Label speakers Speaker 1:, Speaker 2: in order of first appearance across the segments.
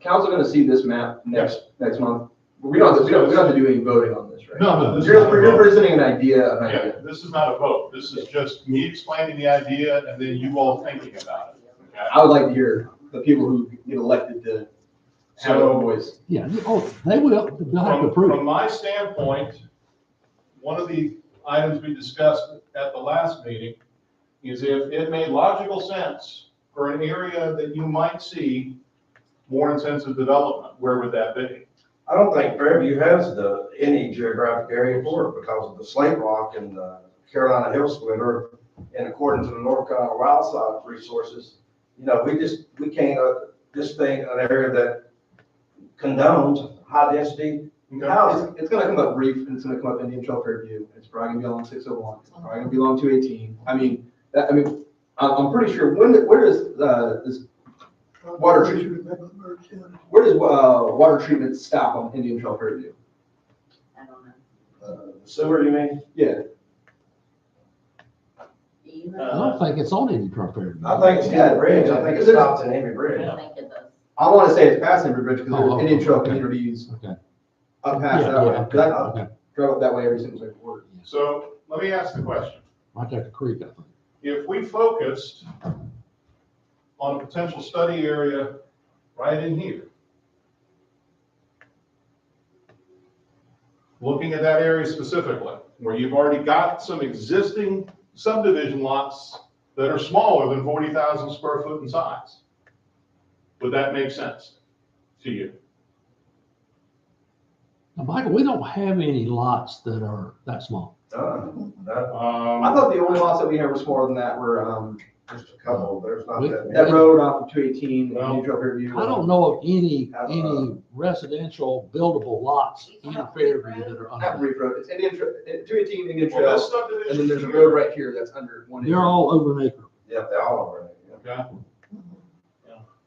Speaker 1: council gonna see this map next, next month? We don't, we don't, we don't have to do any voting on this, right?
Speaker 2: No, no, this is
Speaker 1: You're,
Speaker 2: not
Speaker 1: we're
Speaker 2: a
Speaker 1: you're
Speaker 2: vote.
Speaker 1: presenting an idea, an
Speaker 2: Yeah,
Speaker 1: idea.
Speaker 2: this is not a vote. This is just me explaining the idea and then you all thinking about it. okay?
Speaker 1: I would like to hear the people who get elected to have a
Speaker 2: So-
Speaker 1: voice.
Speaker 3: Yeah, oh, they will, they'll have to
Speaker 2: From,
Speaker 3: approve.
Speaker 2: from my standpoint, one of the items we discussed at the last meeting is if it made logical sense for an area that you might see more intensive development, where would that be?
Speaker 4: I don't think Fairview has the, any geographic area for it because of the slate rock and the Carolina Hill splitter. And according to the North Carolina Wildlife Resources, you know, we just, we can't, uh, this thing, an area that condones high density housing.
Speaker 1: It's, it's gonna come up reef, and it's gonna come up Indian Trail Fairview, it's probably gonna be along six oh one, it's probably gonna be along two eighteen. I mean, that, I mean, I'm, I'm pretty sure, when, where is, uh, this, Water treatment. where does, uh, water treatment stop on Indian Trail Fairview?
Speaker 5: I don't know.
Speaker 4: Uh, Sewer, you mean?
Speaker 1: Yeah,
Speaker 3: I don't think it's on any property.
Speaker 4: I think it's got a bridge. I think it stops in Henry
Speaker 5: I
Speaker 4: Bridge.
Speaker 5: don't think it does.
Speaker 1: I wanna say it's past Henry Bridge, because
Speaker 3: Oh,
Speaker 1: there's
Speaker 3: oh,
Speaker 1: Indian Trail
Speaker 3: okay.
Speaker 1: communities
Speaker 3: Okay.
Speaker 1: up
Speaker 3: Yeah,
Speaker 1: past that way, uh,
Speaker 3: yeah,
Speaker 1: 'Cause I- I
Speaker 3: okay, okay.
Speaker 1: drive up that way every single day for work.
Speaker 2: So let me ask the question.
Speaker 3: Right there at the creek, I think.
Speaker 2: If we focused on a potential study area right in here, looking at that area specifically, where you've already got some existing subdivision lots that are smaller than 40,000 square foot in size, would that make sense to you?
Speaker 3: Now, Michael, we don't have any lots that are that small.
Speaker 4: Done. That-
Speaker 1: I
Speaker 2: Um,
Speaker 1: thought the only lots that we had were smaller than that were, um,
Speaker 4: Just a couple, there's not that many.
Speaker 1: that road off of two eighteen,
Speaker 2: Well,
Speaker 1: Indian Trail Fairview.
Speaker 3: I don't know of any,
Speaker 4: Uh,
Speaker 3: any residential buildable lots in Fairview that are
Speaker 1: Not
Speaker 3: under.
Speaker 1: Reef Road, it's Indian Trail, two eighteen Indian
Speaker 2: well, this
Speaker 1: Trail,
Speaker 2: subdivision
Speaker 1: and then there's a
Speaker 2: here-
Speaker 1: road right here that's under one.
Speaker 3: They're all over an acre.
Speaker 4: Yeah, they're all over there.
Speaker 2: Okay.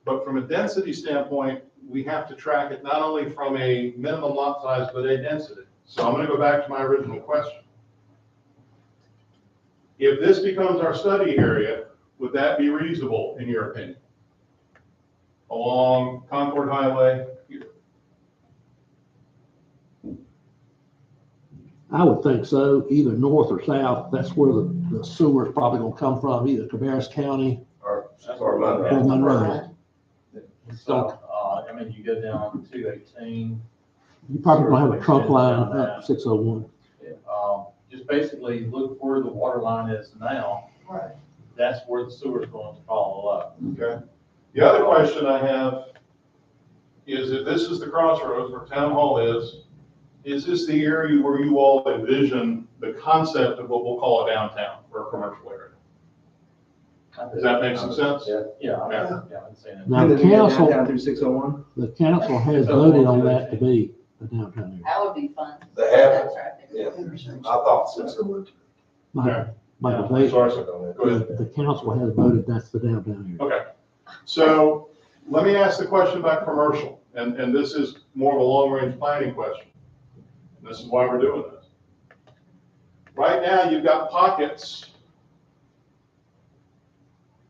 Speaker 2: But from a density standpoint, we have to track it not only from a minimum lot size, but a density. So I'm gonna go back to my original question. If this becomes our study area, would that be reasonable in your opinion? Along Concord Highway?
Speaker 3: I would think so, either north or south. That's where the the sewer is probably gonna come from, either Cabarrus County
Speaker 4: Or, or
Speaker 3: or
Speaker 4: Monroe.
Speaker 3: Monroe.
Speaker 6: So, uh, I mean, you go down two eighteen,
Speaker 3: You probably gonna have a trunk line up six oh one.
Speaker 6: um, just basically look where the water line is now.
Speaker 5: Right.
Speaker 6: That's where the sewer's going to follow up.
Speaker 2: Okay. The other question I have is if this is the crossroads where town hall is, is this the area where you all envision the concept of what we'll call a downtown or a commercial area? Does that make some sense?
Speaker 4: Yeah.
Speaker 6: Yeah, I mean, yeah, I'm saying it.
Speaker 3: Now,
Speaker 1: And
Speaker 3: the
Speaker 1: then we get
Speaker 3: council,
Speaker 1: down through six oh one.
Speaker 3: the council has voted on that to be the downtown area.
Speaker 5: That would be fun.
Speaker 4: They have it.
Speaker 5: That's right.
Speaker 4: Yeah. I thought so.
Speaker 3: Michael, Michael,
Speaker 2: Yeah,
Speaker 3: they,
Speaker 2: sorry, sir. Go ahead.
Speaker 3: the the council has voted that's the downtown area.
Speaker 2: Okay. So let me ask the question about commercial, and, and this is more of a long-range planning question. This is why we're doing this. Right now, you've got pockets.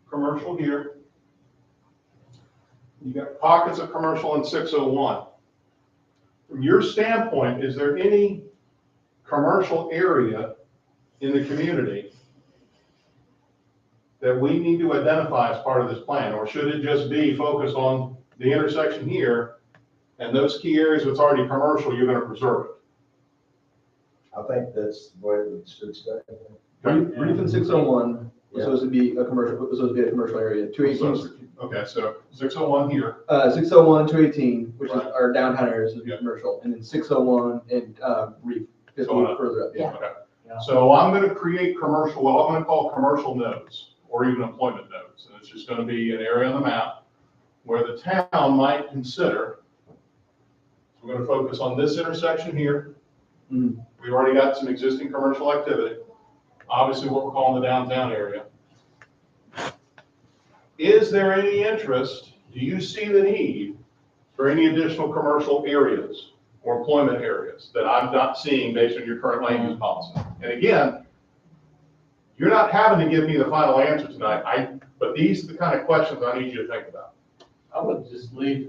Speaker 2: Commercial here. You've got pockets of commercial in 601. From your standpoint, is there any commercial area in the community that we need to identify as part of this plan? Or should it just be focused on the intersection here and those key areas that's already commercial, you're gonna preserve it?
Speaker 4: I think that's the way it should stay.
Speaker 1: Reef Reef and six oh one was supposed to be a commercial, was supposed to be a commercial area, two eighteen,
Speaker 2: Okay, so six oh one here,
Speaker 1: uh, six oh one, two eighteen, which is
Speaker 2: Right.
Speaker 1: our downtown area, is supposed to be
Speaker 2: Yeah.
Speaker 1: commercial, and then six oh one and, uh, Reef is a
Speaker 2: Going
Speaker 1: little
Speaker 2: up.
Speaker 1: further up.
Speaker 5: Yeah.
Speaker 2: okay.
Speaker 6: Yeah.
Speaker 2: So I'm gonna create commercial, well, I'm gonna call commercial nodes or even employment nodes. And it's just gonna be an area on the map where the town might consider. We're gonna focus on this intersection here.
Speaker 1: Mm.
Speaker 2: We've already got some existing commercial activity, obviously what we're calling the downtown area. Is there any interest, do you see the need for any additional commercial areas or employment areas that I'm not seeing based on your current land use policy? And again, you're not having to give me the final answer tonight, I, but these are the kind of questions I need you to think about.
Speaker 6: I would just leave